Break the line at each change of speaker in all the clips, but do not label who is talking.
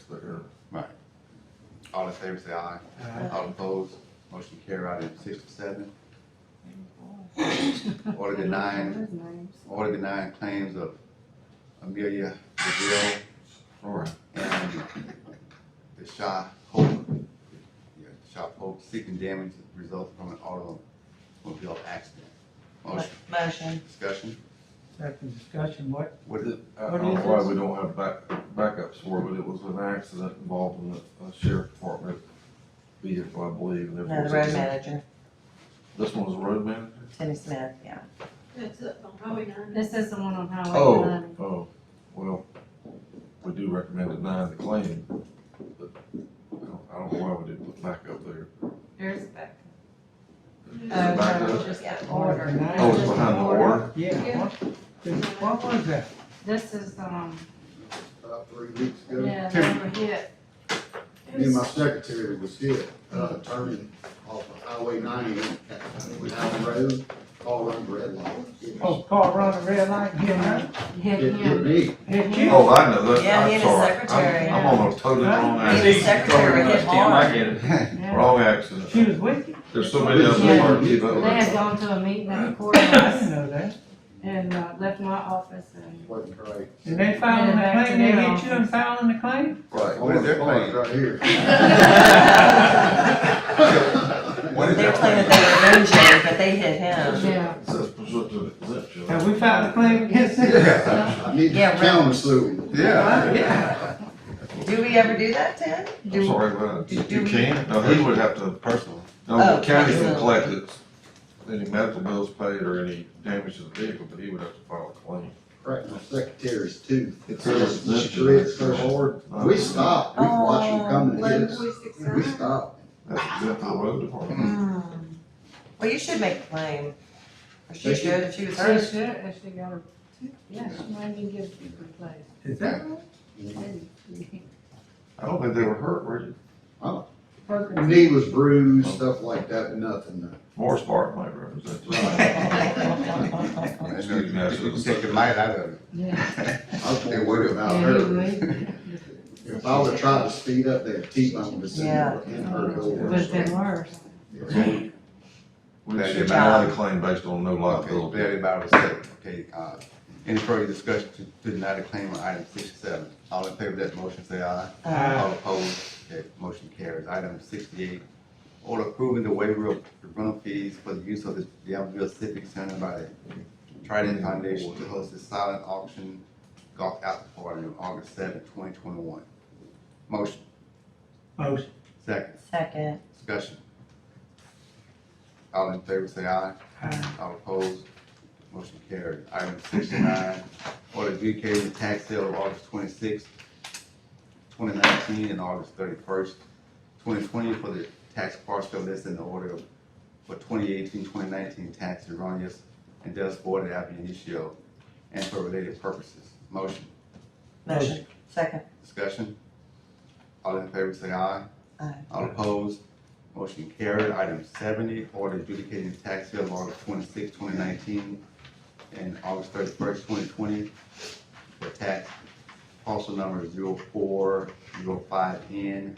split hearing.
Right.
All in favor, say aye.
Aye.
All opposed, motion carried. Item sixty-seven, order denying, order denying claims of Amelia Brazil and the Shaw Hope, yeah, Shaw Hope seeking damage resulting from an automobile accident. Motion,
Motion.
discussion,
Second discussion, what,
what is it?
I
What
don't know
is
why
this?
we don't have back, backups for it, but it was an accident involving a a sheriff department vehicle, I believe, and there
No,
was.
the road manager,
This one was a road manager?
Timmy Smith, yeah.
It's up on Highway nine.
This is the one on Highway
Oh,
nine.
oh, well, we do recommend denying the claim, but I don't, I don't know why we didn't put backup there.
There's a back.
Is
Oh,
it back
no,
there?
Just the
Order
order.
denied.
Oh, it's behind the order?
yeah, what, this- what was that?
This is, um,
about three weeks ago.
yeah, they were hit.
Me and my secretary was hit, uh, turning off of Highway ninety, it was out the road, all run red light. It
Oh, car run the red light, hit her,
Hit
it hit
him.
me.
hit you?
Oh, I know, that,
Yeah, he
I'm
had a
sorry.
secretary.
I'm- I'm on a totally wrong
Right.
He had a
accident,
secretary hit hard.
Yeah.
wrong
She
accident.
was with you?
There's so many of
Yeah.
them. that
They
are-
had gone to a meeting in the
I didn't
courthouse
know that.
and uh, left my office and
Wasn't great.
Did they file
Went
the
back to
claim, they
their
hit you and
office.
filing the claim?
Right, what is their claim?
Right here.
What is
They
their
were claiming
claim?
they were injured, but they hit him.
Yeah.
Says presumptive exemption.
Have we filed a claim against them?
Yeah,
I need to
Yeah, right.
town was suing.
yeah.
Yeah.
Do we ever do that, Tim?
I'm
Do,
sorry, but
do-
you
do-
can, no, he would have to personally, no,
Oh,
the county can
personally.
collect it, any medical bills paid or any damage to the vehicle, but he would have to file a claim.
Cracked my secretary's tooth.
It's a
She
residential.
tripped so hard. We stopped, we watched
Oh,
them coming to hit us. We stopped.
That's good for the road department.
Hmm. Well, you should make a claim. Or she
They should.
should if she was
She
hurt.
should, if she got her, yeah, she might even get it replaced.
Is that,
I don't think they were hurt, were you?
Broken.
Knee was bruised, stuff like that, but nothing.
Morris Park might represent.
You
Excuse me, I should have
can take the
said.
might out of it.
Yeah.
I was more worried about
Yeah,
her.
he would.
If I would've tried to speed up that T-bone decision
Yeah.
and her
It
over.
would've been worse.
We
That
should
did
deny
matter.
the claim based on no
Okay,
liability.
everybody was safe. Okay, uh, any further discussion to deny the claim on item sixty-seven? All in favor of that motion, say aye.
Uh,
All opposed, okay, motion carries. Item sixty-eight, order approving the waiver of the rental fees for the use of the Yountville Civic Center by the Trident Foundation to host a silent auction golf out party on August seventh, twenty twenty-one. Motion,
motion,
second.
Second.
Discussion. All in favor, say aye.
Aye.
All opposed, motion carried. Item sixty-nine, order adjudicating the tax sale of August twenty-sixth, twenty nineteen, and August thirty-first, twenty twenty, for the tax parcel list in the order of, for 2018-2019 tax erroneous and thus voided ab initio and for related purposes. Motion,
Motion. Second.
discussion. All in favor, say aye.
Aye.
All opposed, motion carried. Item seventy, order adjudicating the tax sale of August 26, 2019, and August thirty-first, twenty twenty for tax parcel number zero four, zero five N,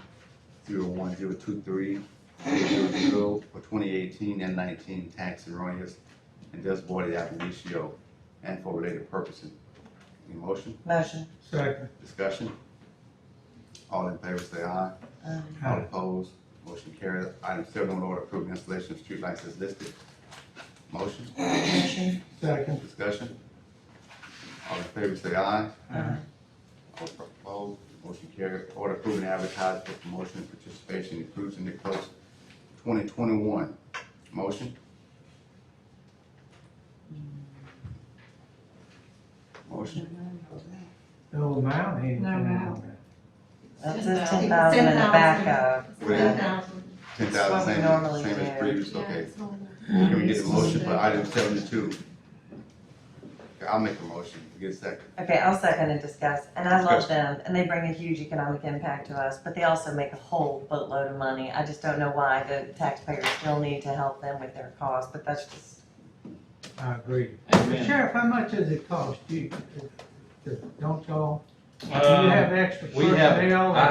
zero one, zero two three, zero zero for twenty eighteen and nineteen tax erroneous and thus voided ab initio and for related purposes. Any motion,
Motion.
second,
discussion? All in favor, say aye.
Uh,
All opposed, motion carries. Item seven on order approving installation of streetlights is listed. Motion,
Motion.
second,
discussion. All in favor say aye.
Aye.
All opposed, motion carries. Order approving advertising for promotion and participation in cruise and the coast twenty twenty-one. Motion? Motion?
no amount, anything
No
on
amount.
that.
That's a ten thousand in the backup.
With
thousand.
ten
what we
thousand,
normally
same, same
do.
as previous, okay.
it's on there.
Can we get a motion for item seventy-two? Okay, I'll make a motion, get a second.
Okay, I'll second and discuss, and I love them, and they bring a huge economic impact to us, but they also make a whole boatload of money. I just don't know why the taxpayers still need to help them with their costs, but that's just,
I agree.
Amen.
Sheriff, how much does it cost you? to- to- Don't y'all, do you
Um,
have extra
we have-
personnel?
I-